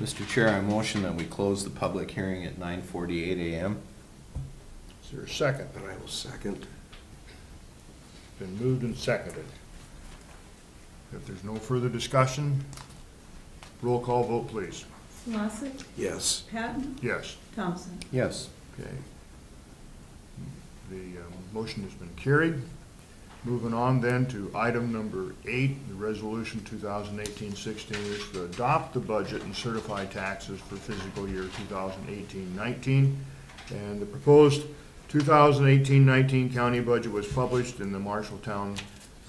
Mr. Chair, I motion that we close the public hearing at nine forty-eight AM. Is there a second? And I will second. Been moved and seconded. If there's no further discussion, roll call vote, please. Solosik, Yes. Patton, Yes, Thompson. Yes. okay. The um, motion has been carried. Moving on then to item number eight, the resolution 2018-16 is to adopt the budget and certify taxes for fiscal year 2018-19. And the proposed 2018-19 county budget was published in the Marshalltown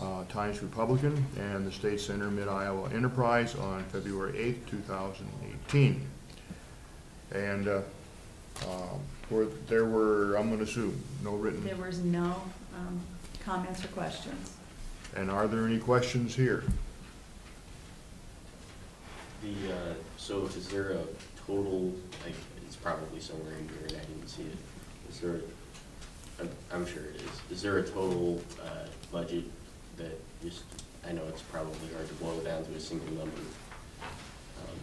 uh, Times Republican and the State Center Mid-Iowa Enterprise on February 8th, 2018. And uh, um, were- there were, I'm going to assume, no written There was no um, comments or questions. and are there any questions here? The, uh, so is there a total, like, it's probably somewhere in here and I didn't see it. Is there, I'm, I'm sure it is. Is there a total, uh, budget that just, I know it's probably hard to boil down to a single number. um,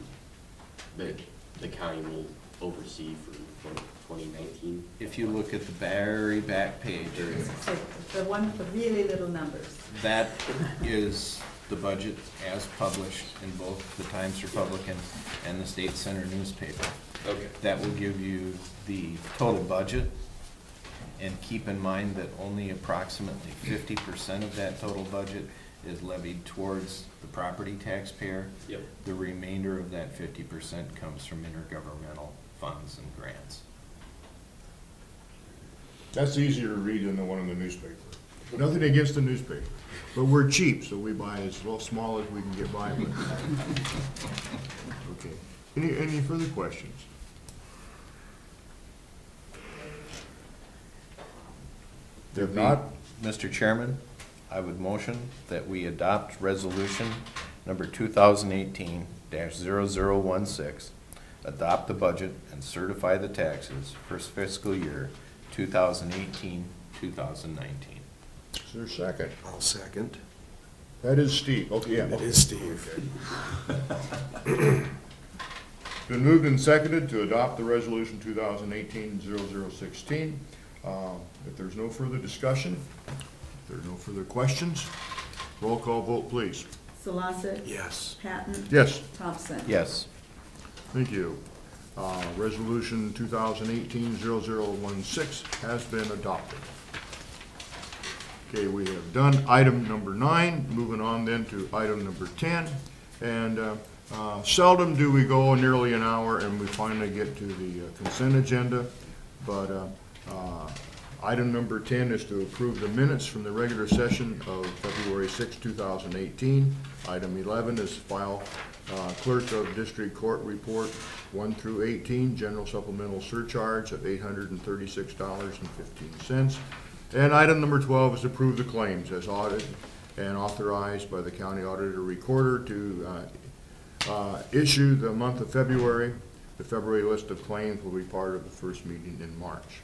That the county will oversee for twenty nineteen? If you look at the very back page, So The one with the really little numbers. that is the budget as published in both the Times Republican and the State Center newspaper. Okay. That will give you the total budget. And keep in mind that only approximately fifty percent of that total budget is levied towards the property taxpayer. Yep. The remainder of that fifty percent comes from intergovernmental funds and grants. That's easier to read than the one in the newspaper. Nothing against the newspaper, but we're cheap, so we buy as little small as we can get by with. Okay. Any, any further questions? If not, Mr. Chairman, I would motion that we adopt resolution number two thousand eighteen 16 adopt the budget and certify the taxes for fiscal year 2018-2019. is there a second? I'll second. That is Steve, okay, yeah. It is Steve. Been moved and seconded to adopt the resolution 2018-0016. Uh, If there's no further discussion, if there are no further questions, roll call vote, please. Solosik. Yes. Patton. Yes. Thompson. Yes, Thank you. Uh, Resolution 2018-0016 has been adopted. Okay, we have done item number nine, moving on then to item number 10. And uh, uh, seldom do we go nearly an hour and we finally get to the uh, consent agenda. But uh, uh, item number 10 is to approve the minutes from the regular session of February 6, 2018. Item 11 is file uh, clerk of district court report 1 through 18, general supplemental surcharge of $836.15. And item number 12 is approve the claims as audited and authorized by the county auditor recorder to uh, uh, issue the month of February. The February list of claims will be part of the first meeting in March.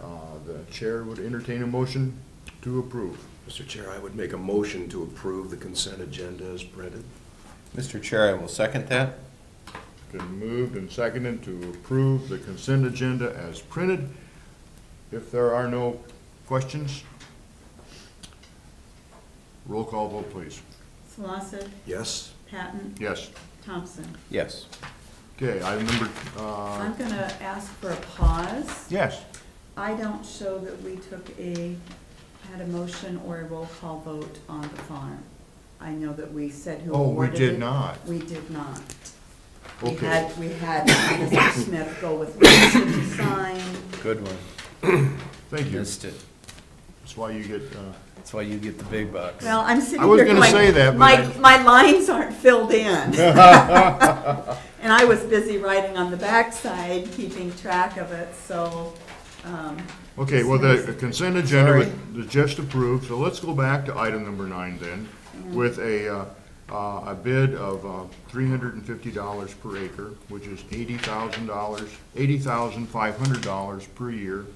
Uh, The chair would entertain a motion to approve. Mr. Chair, I would make a motion to approve the consent agenda as printed. Mr. Chair, I will second that. Been moved and seconded to approve the consent agenda as printed. If there are no questions, roll call vote, please. Solosik, Yes? Patton, Yes. Thompson. Yes. Okay, item number, uh, I'm going to ask for a pause. yes, I don't show that we took a, had a motion or a roll call vote on the farm. I know that we said who Oh, we awarded did it. not. We did not. We Okay. had, we had Mr. Smith go with motion to sign. Good one. thank you. Missed it. That's why you get, uh, That's why you get the big bucks. Well, I'm sitting I was here gonna say that, going, but my, I- my lines aren't filled in. And I was busy writing on the backside, keeping track of it, so, um, okay, well, the Sorry. consent agenda was just approved, so let's go back to item number nine then, with a, uh, uh, a bid of uh, $350 per acre, which is $80,000, $80,500 per year,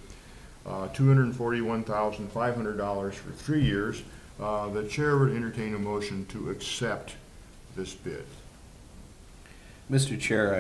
uh, $241,500 for three years. Uh, The chair would entertain a motion to accept this bid. Mr. Chair,